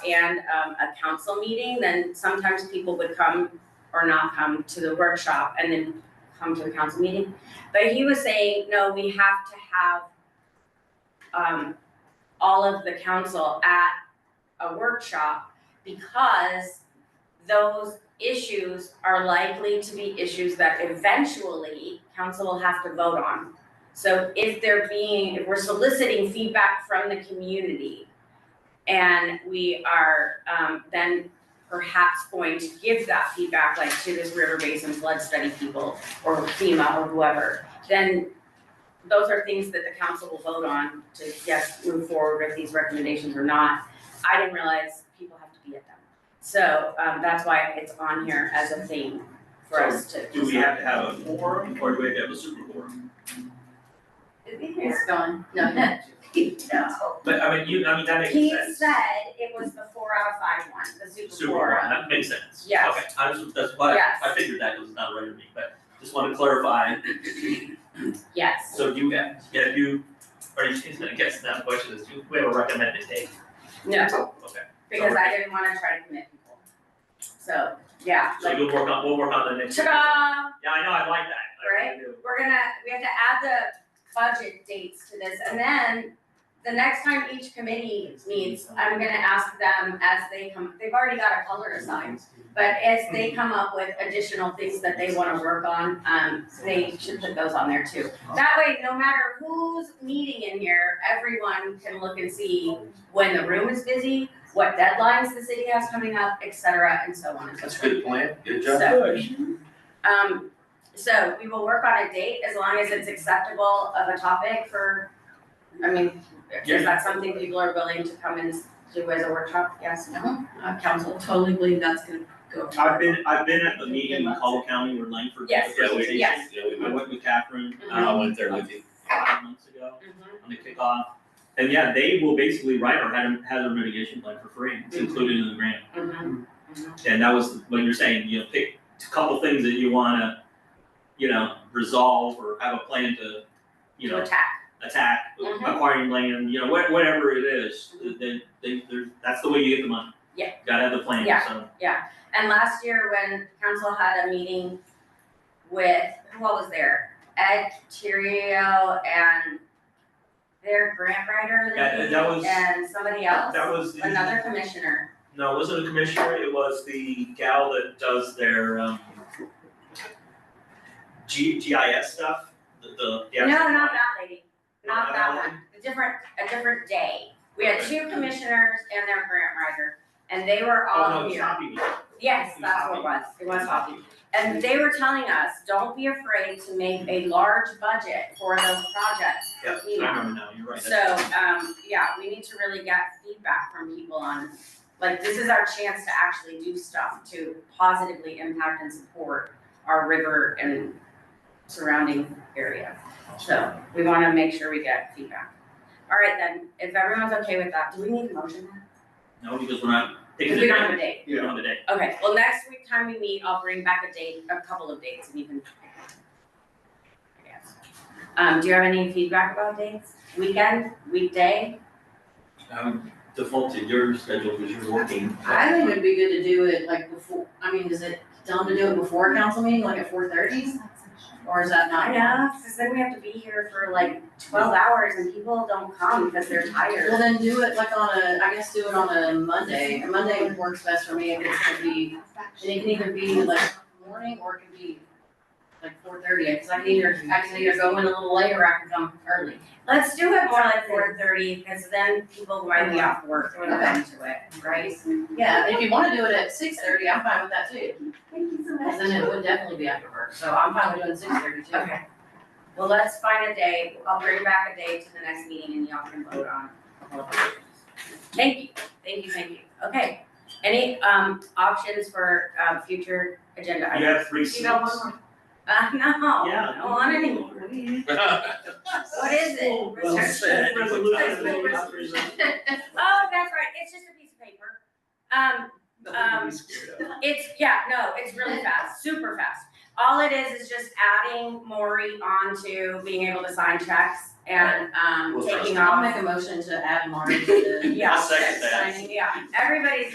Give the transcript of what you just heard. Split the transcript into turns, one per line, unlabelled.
and um a council meeting, then sometimes people would come or not come to the workshop and then come to the council meeting. But he was saying, no, we have to have um all of the council at a workshop because those issues are likely to be issues that eventually council will have to vote on. So if they're being, if we're soliciting feedback from the community and we are um then perhaps going to give that feedback like to this river basin flood study people or FEMA or whoever, then those are things that the council will vote on to yes, move forward with these recommendations or not. I didn't realize people have to be at them. So um that's why it's on here as a theme for us to.
Do we have to have a forum or do we have to have a super forum?
It's gone, no, no.
No.
But I mean, you, I mean, that makes
He
sense.
said it was the four out of five one, the super
Super
four.
forum, that makes sense.
Yes.
Okay, I just, that's why,
Yes.
I figured that was not right of me, but just want to clarify.
Yes.
So do you, yeah, you, are you, I guess that question is, do we have a recommended date?
No,
Okay.
because I didn't wanna try to commit people. So, yeah,
So
like,
you'll work on, we'll work on the next.
ta-da,
Yeah, I know, I like that. I really do.
we're gonna, we have to add the budget dates to this, and then the next time each committee meets, I'm gonna ask them as they come, they've already got a color assigned, but as
Hmm.
they come up with additional things that they wanna work on, um, they should put those on there too.
Oh.
That way, no matter who's meeting in here, everyone can look and see when the room is busy, what deadlines the city has coming up, et cetera, and so on and so forth.
That's a good plan, good job.
So, um, so we will work on a date as long as it's acceptable of a topic for, I mean,
Yeah.
is that something people are willing to come and do as a workshop? Yes, no,
Mm-hmm.
uh, council?
Totally believe that's gonna go.
I've been, I've been at the meeting in Call County where Langford did the
Yes,
presentation.
yes. Mm-hmm.
Yeah, we
I
went,
went with Catherine,
I
um,
went there with you.
five months ago on the kickoff. And yeah, they will basically write our hazard, hazard mitigation plan for free,
Mm-hmm.
it's included in the grant. Mm-hmm. And that was when you're saying, you know, pick a couple things that you wanna, you know, resolve or have a plan to, you know,
To attack.
attack,
Mhm.
acquiring land, you know, wha- whatever it is, then they, they're, that's the way you get the money.
Yeah.
Gotta have the plan,
Yeah.
so.
And last year when council had a meeting with, who all was there? Ed Tirio and their grant writer
Yeah, that- that was-
and somebody else,
That was the-
another commissioner.
No, it wasn't a commissioner, it was the gal that does their um G GIS stuff, the the the
No,
actual-
not that lady. Not that
one.
one, a different, a different day. We had two commissioners and their grant writer, and they were
Oh,
all
no, it's
here.
not people.
Yes, that's what it was, it was hockey. And they were telling us, don't be afraid to make a large budget for those projects.
Yeah,
You know.
I remember now, you're right.
So, um, yeah, we need to really get feedback from people on, like, this is our chance to actually do stuff to positively impact and support our river and surrounding area. So we wanna make sure we get feedback. All right, then, if everyone's okay with that, do we need a motion?
No, because we're not
Because
taking the
we
day,
don't have a date.
we don't have a day.
Okay, well, next week time we meet, I'll bring back a date, a couple of dates and you can. I guess. Um, do you have any feedback about dates? Weekend, weekday?
Um, default to your schedule because you're working.
I think it'd be good to do it like before, I mean, is it, tell them to do it before council meeting, like at four thirty? Or is that not?
Yeah, because then we have to be here for like twelve hours and people don't come because they're
Well,
tired.
then do it like on a, I guess do it on a Monday, a Monday works best for me, if it's gonna be, and it can either be like morning or it can be like four thirty, cause I can either, I can either go in a little late or I can come early.
Let's do it more like four thirty, because then people might be off work when they're into it, right?
Yeah, if you wanna do it at six thirty, I'm fine with that too,
Thank you so
cause then it would definitely be after work, so I'm fine with doing six thirty too.
Okay. Well, let's find a day, I'll bring back a day to the next meeting and y'all can vote on. Thank you, thank you, thank you. Okay, any um options for um future agenda
You
items?
have three seats.
Uh, no,
Yeah.
I don't want any more. What is it?
Well,
Research.
said.
Oh, that's right, it's just a piece of paper. Um,
Nothing to be scared of.
it's, yeah, no, it's really fast, super fast. all it is is just adding Maury onto being able to sign checks and, um,
We'll trust
taking
him.
I'll
off.
make a motion to add Marty to the.
Yeah.
I'll second that.
signing.
Yeah, everybody's